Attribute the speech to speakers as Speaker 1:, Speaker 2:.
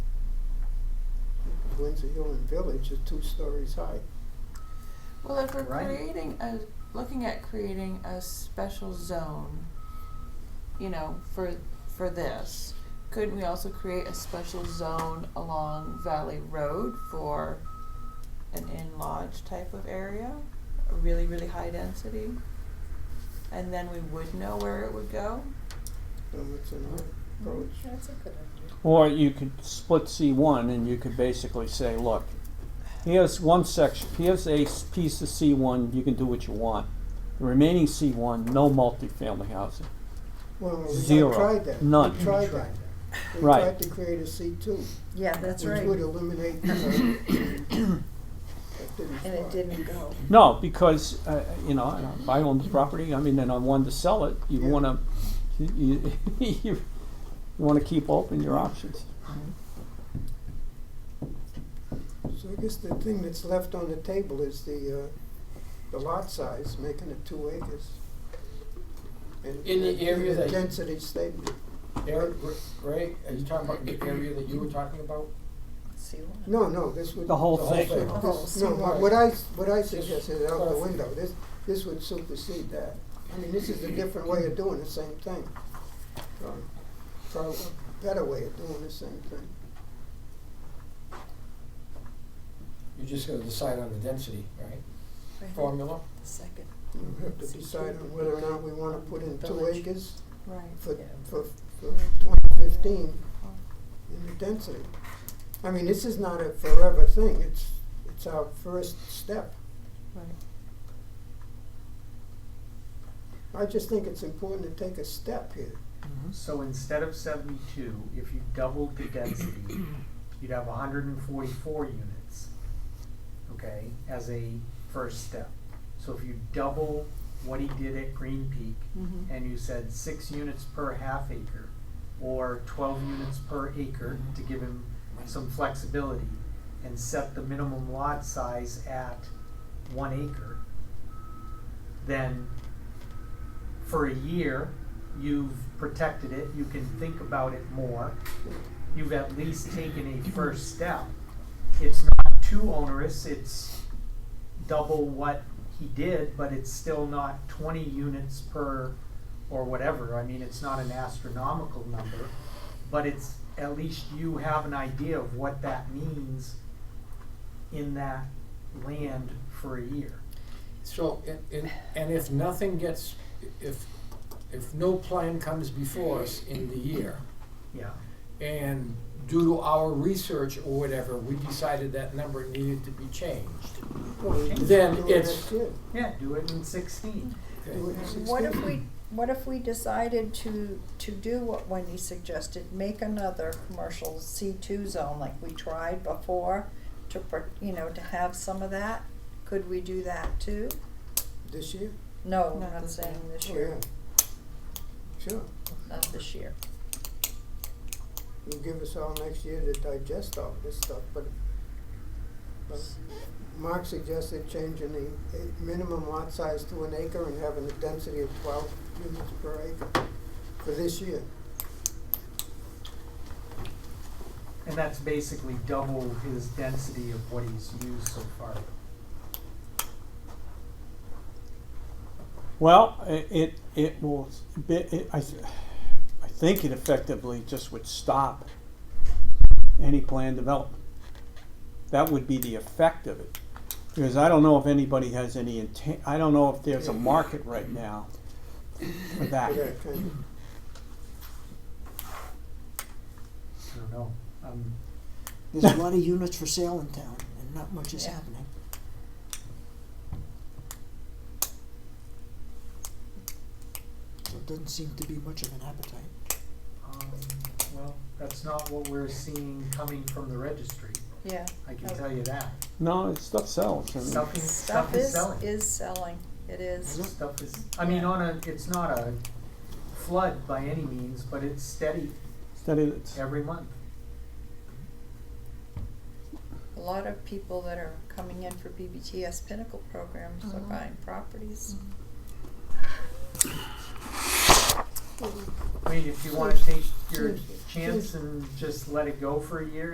Speaker 1: Windsor Hill and Village is two stories high.
Speaker 2: Well, if we're
Speaker 3: Right.
Speaker 2: creating a, looking at creating a special zone, you know, for, for this, couldn't we also create a special zone along Valley Road for an in-lodge type of area? A really, really high density? And then we would know where it would go?
Speaker 1: Um, it's an approach.
Speaker 4: That's a good idea.
Speaker 5: Or you could split C one and you could basically say, look, here's one section, here's a s- piece of C one, you can do what you want. The remaining C one, no multifamily housing.
Speaker 1: Well,
Speaker 5: Zero.
Speaker 1: we tried that.
Speaker 5: None.
Speaker 1: We tried that. We
Speaker 5: Right.
Speaker 1: tried to create a C two,
Speaker 4: Yeah, that's
Speaker 1: which
Speaker 4: right.
Speaker 1: would eliminate, you know. That didn't
Speaker 4: And it
Speaker 1: fly.
Speaker 4: didn't go.
Speaker 5: No, because, uh, you know, and if I own the property, I mean, and I wanted to sell it, you
Speaker 1: Yeah.
Speaker 5: wanna, you, you, you wanna keep open your options.
Speaker 1: So I guess the thing that's left on the table is the, uh, the lot size, making it two acres. And-
Speaker 3: In the
Speaker 1: and
Speaker 3: area that-
Speaker 1: Density statement.
Speaker 3: Eric, Ray, are you talking about the area that you were talking about?
Speaker 4: See what?
Speaker 1: No, no, this would.
Speaker 5: The whole
Speaker 3: The whole
Speaker 5: thing.
Speaker 3: thing.
Speaker 4: The whole
Speaker 1: This-
Speaker 4: thing.
Speaker 1: No, what what I, what I suggested is out the window, this, this would supersede that. I mean, this is a different way of doing the same thing. Um, Probably a better way of doing the same thing.
Speaker 3: You're just gonna decide on the density, right?
Speaker 4: Right.
Speaker 3: Formula?
Speaker 4: Second.
Speaker 1: You have to decide on whether or not we wanna put in two
Speaker 4: Village.
Speaker 1: acres
Speaker 2: Right.
Speaker 1: for,
Speaker 4: Yeah.
Speaker 1: for, for twenty fifteen in the density. I mean, this is not a forever thing, it's, it's our first step.
Speaker 2: Right.
Speaker 1: I just think it's important to take a step here.
Speaker 6: So instead of seventy-two, if you doubled the density, you'd have hundred and forty-four units, okay, as a first step. So if you double what he did at Green Peak,
Speaker 2: Mm-hmm.
Speaker 6: and you said six units per half acre, or twelve units per acre to give him some flexibility, and set the minimum lot size at one acre, then for a year, you've protected it, you can think about it more, you've at least taken a first step. It's not too onerous, it's double what he did, but it's still not twenty units per or whatever, I mean, it's not an astronomical number, but it's, at least you have an idea of what that means in that land for a year.
Speaker 3: So, and, and, and if nothing gets, if, if no plan comes before us in the year,
Speaker 6: Yeah,
Speaker 3: and due to our research or whatever, we decided that number needed to be changed.
Speaker 1: Well, we just
Speaker 3: Then
Speaker 1: do it
Speaker 3: it's-
Speaker 1: next year.
Speaker 6: yeah, do it in sixteen.
Speaker 3: okay?
Speaker 1: Do it in
Speaker 4: What if
Speaker 1: 16.
Speaker 4: we, what if we decided to, to do what Wendy suggested, make another commercial C two zone like we tried before to, pro- you know, to have some of that? Could we do that too?
Speaker 1: This year?
Speaker 2: Not
Speaker 4: No, I'm not
Speaker 2: this year.
Speaker 4: saying this
Speaker 1: Oh,
Speaker 4: year,
Speaker 1: yeah. Sure,
Speaker 4: not this year.
Speaker 1: you give us all next year to digest all this stuff, but, but Mark suggested changing the eh, minimum lot size to an acre and having a density of twelve units per acre for this year.
Speaker 6: And that's basically double his density of what he's used so far.
Speaker 5: Well, i- it, it will, be- it, I, th- I think it effectively just would stop any planned development. That would be the effect of it, because I don't know if anybody has any intent, I don't know if there's a market right now for that.
Speaker 1: For that kind of-
Speaker 6: I don't know, um,
Speaker 7: There's a lot of units for sale in town, and not much is
Speaker 4: Yeah.
Speaker 7: happening. So it doesn't seem to be much of an appetite.
Speaker 6: um, well, that's not what we're seeing coming from the registry,
Speaker 4: Yeah.
Speaker 6: I can tell you that.
Speaker 5: No, it's stuff sells, I mean,
Speaker 6: Stuff is,
Speaker 4: Stuff
Speaker 6: stuff is
Speaker 4: is,
Speaker 6: selling.
Speaker 4: is selling, it is.
Speaker 6: stuff is, I mean, on a, it's not a flood by any means, but it's steady
Speaker 5: steady, it's-
Speaker 6: every month.
Speaker 4: A lot of people that are coming in for BBTS Pinnacle programs are
Speaker 7: Mhm.
Speaker 4: buying properties.
Speaker 6: I mean, if you wanna take your
Speaker 1: Seriously.
Speaker 6: chance and just let it go for a year